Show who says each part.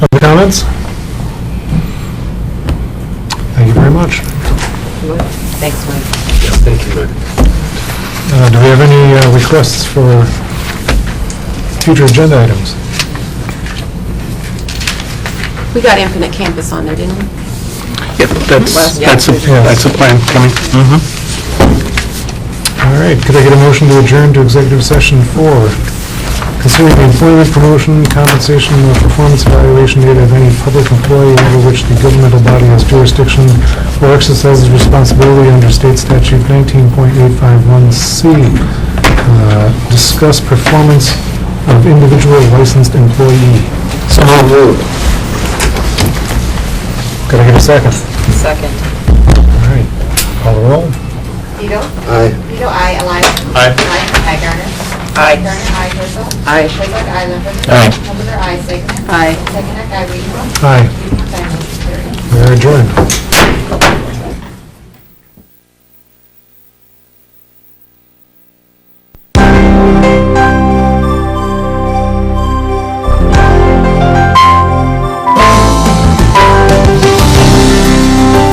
Speaker 1: comments? Thank you very much.
Speaker 2: Thanks, Mike.
Speaker 3: Thank you, Mike.
Speaker 1: Uh, Do we have any uh, requests for future agenda items?
Speaker 2: We got Infinite Campus on there, didn't we?
Speaker 4: Yep, that's,
Speaker 2: Yeah.
Speaker 4: that's, a
Speaker 1: Yeah.
Speaker 4: that's a plan coming. Mhm.
Speaker 1: All right, could I get a motion to adjourn to executive session four? Considering the employment promotion, compensation, or performance evaluation data of any public employee over which the governmental body has jurisdiction or exercises responsibility under state statute 19.851C. Uh, Discuss performance of individual licensed employee. So moved. Could I get a second?
Speaker 2: Second.
Speaker 1: All right, call the roll.
Speaker 5: Vito?
Speaker 3: Aye.
Speaker 5: Vito, I, Elias?
Speaker 4: Aye.
Speaker 5: Aye, Garner?
Speaker 2: Aye.
Speaker 5: Garner, aye, Herzl?
Speaker 2: Aye.
Speaker 5: Herzl, aye, Lumberger?
Speaker 4: Aye.
Speaker 5: Lumberger, aye, Segner?
Speaker 2: Aye.
Speaker 5: Segner, aye, Weaver?
Speaker 1: Aye,
Speaker 5: Weaver, aye, motion carried.
Speaker 1: we are adjourned.